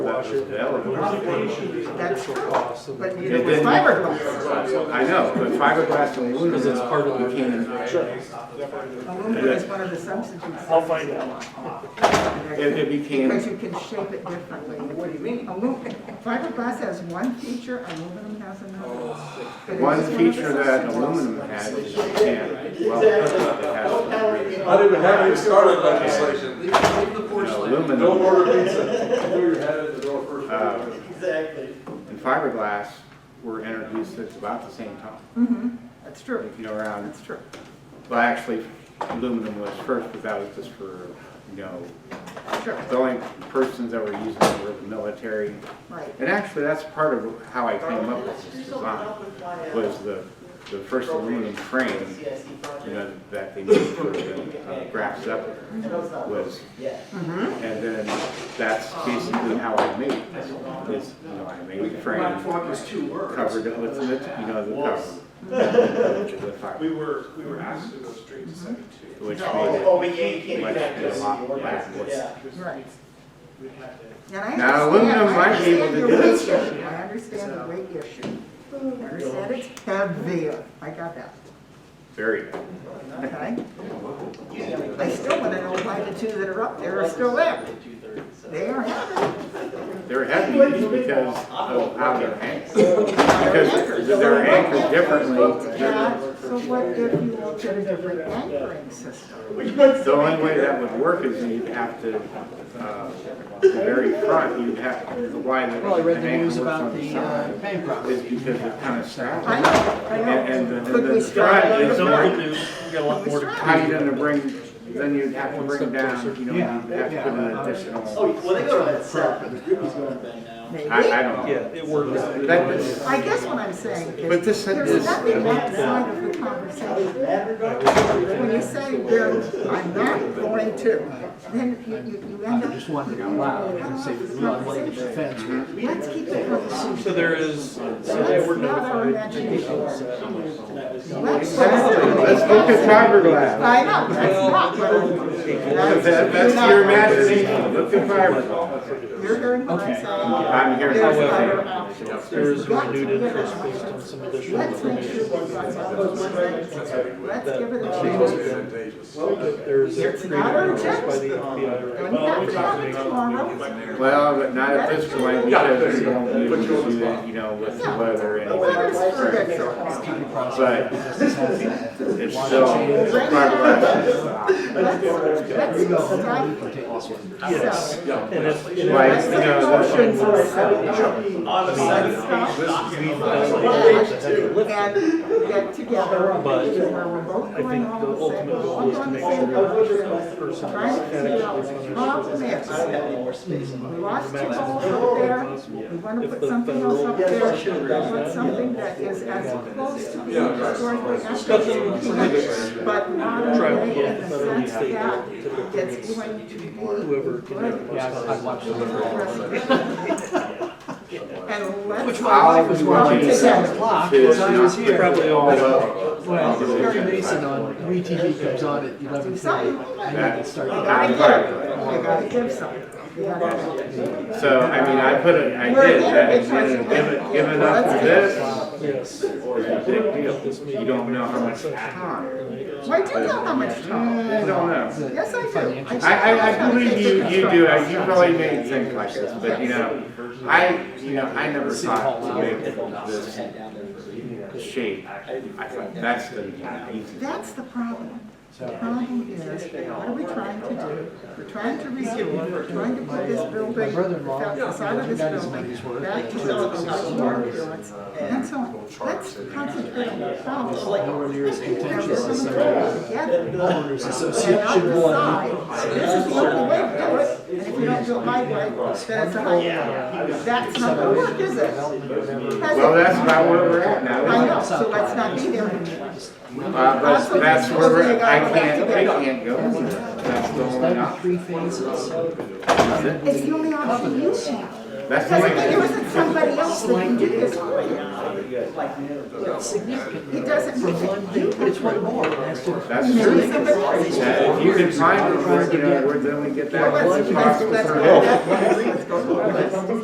gosh, it available. was an That's additional cost. and- But Yeah, neither was then- fiberglass. I know, but fiberglass and aluminum. Because it's part of the can- Sure. Aluminum is one of the substitutes. I'll find out. It, it Because became, you can shape it differently. What do you mean? Aluminum, fiberglass has one feature, aluminum has another. But it's one just of the feature that substitutes. aluminum had is you can't weld it. It has to be I didn't have any started legislation. you know, Don't Aluminum order pizza. Throw your head at the door first. Uh, Exactly. and fiberglass were introduced at about the same time, Mhm, That's true, if you know, around, that's true. well, actually, aluminum was first, but that was just for, you know, Sure, the only persons that were using it were the military. right. And actually, that's part of how I came up with this design, was the, the first aluminum frame you know, that they made for the uh, graph Zeppelin was, and then that's basically how I made it. Is, you know, I made the frame, was two words. covered it with, the- you know, the cover. With We fiber, were, we were asked to go straight to seventy-two. which Oh, made we can't it get much, that. a lot less. Yeah. Right. We had to. And I Now, aluminum understand, I might be able understand to your do weight this. issue. I understand the weight issue. I understand it's heavier. I got that, Very, good. okay? I still want to know why the two that are up there are still there. They are heavy. they're heavy because of how they're anchored. They're Because they're anchored differently. Yeah, so what if you look at a different anchoring system? Which makes. The only way that would work is you'd have to, uh, the very front, you'd have, why the. Well, I read the anchor news works about on the side. uh, pain problem. is because they're kind of stacked. I know, I And, know. and the, Could and we the strike stride it is from over- the We got a lot more to how you gonna bring, then you'd have to bring down, you know, you'd have to put an Oh, additional. well, they go to that seven, Ruby's going to bed now. Maybe. I, I don't Yeah, know. it works. That is- I guess what I'm saying But is, this there's is, nothing outside of the conversation. When you say, "Well, I'm not going to, then you, you, you I end up. just wondered out loud, I didn't say, well, I'm like, it's a fence. Let's keep it conversation. So there is, so they That's were not our notified. imagination. Let's- exactly, let's look at fiberglass. I know, that's not what I'm. That- That's your imagination, look at fiberglass. You're hearing what I'm saying. I'm hearing There's what you're saying. other options. There is There's renewed lots of interest other based on options. some additional Let's make information. sure what's on those things. Let's give it a chance. There is a It's greater not our interest by intent. the FBI. And that's coming tomorrow. Well, but not at this point, because you don't usually do that, you know, with the weather The weather's and. perfect. so But it's still fiberglass is the option. Let's, let's stop. Yes. So, And if, and if Like, you know, the- Motion for a second. On the And get together, But because we're both I going think the on the same, ultimate we're goal all is to on the uh, make same sure page. that person Trying to figure out actually what's wrong understands. I don't have any more space in We my. lost two goals up there, we wanna put something else up there, we want something that is as close to being historically accurate, but not only in the sense that it's going to be Whoever good. can. And let's. Which I'll my wife was be watching watching at seven it. o'clock, to because I was not here. Probably all up. Well, Perry Mason on, WeTV comes on at eleven thirty, I need to That's start. I not fiberglass. gotta give, I gotta give something. We gotta- So, I mean, I put it, I did, that is, given, given up for this, Yes. is a big deal. You don't know how much time. Why do you know how much I time? don't know. Yes, I do. Financial- I, I, I believe you, you do, uh, you probably made things like this, but you know, I, you know, I never thought to make this shape. I thought, that's the easy. That's the problem. The problem is, what are we trying to do? We're trying to resume, we're trying to put this building, brother-in-law, the side of got this his money's building, worth. back to the original appearance. And so, on. let's concentrate on the problem. Let's get this together. Homeowners And Association. out the side, this is not the way to do it, and if you don't do it my way, then it's a highway. That's not gonna work, is it? Has Well, it? that's about where we're at now. I know, so let's not be there anymore. Uh, that's, that's where we're, I can't, I can't go. That's the only option. Three phases. It's the only option you have. That's the Because if there only. isn't somebody else that can do this for you, it doesn't mean that you But it's one more, it has to- That's can true. do somebody else. Yeah, If you can find it, you know, where then we get that. Let's, let's, let's go, let's go, let's go.